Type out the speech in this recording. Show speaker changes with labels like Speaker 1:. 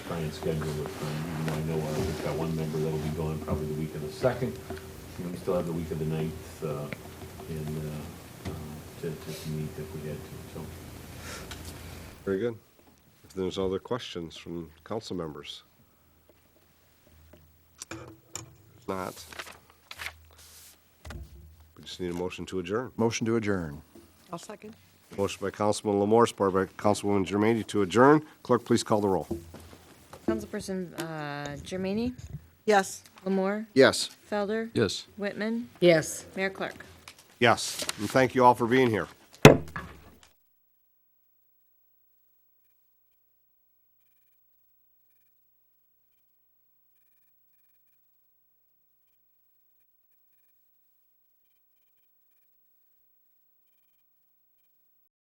Speaker 1: try and schedule it. um, I know uh, we've got one member that'll be gone probably the week of the second, and we still have the week of the ninth, uh, and, uh, uh, to, to meet if we had to, so.
Speaker 2: Very good. If there's other questions from council members? If Not. We just need a motion to adjourn.
Speaker 3: Motion to adjourn.
Speaker 4: I'll second.
Speaker 2: Motion by Councilman Lamore, supported by Councilwoman Germaine to adjourn. Clerk, please call the roll.
Speaker 5: Councilperson uh, Germaine,
Speaker 4: Yes.
Speaker 5: Lamore,
Speaker 2: Yes.
Speaker 5: Felder,
Speaker 3: Yes.
Speaker 5: Whitman,
Speaker 6: Yes.
Speaker 5: Mayor Clark.
Speaker 2: Yes, and thank you all for being here.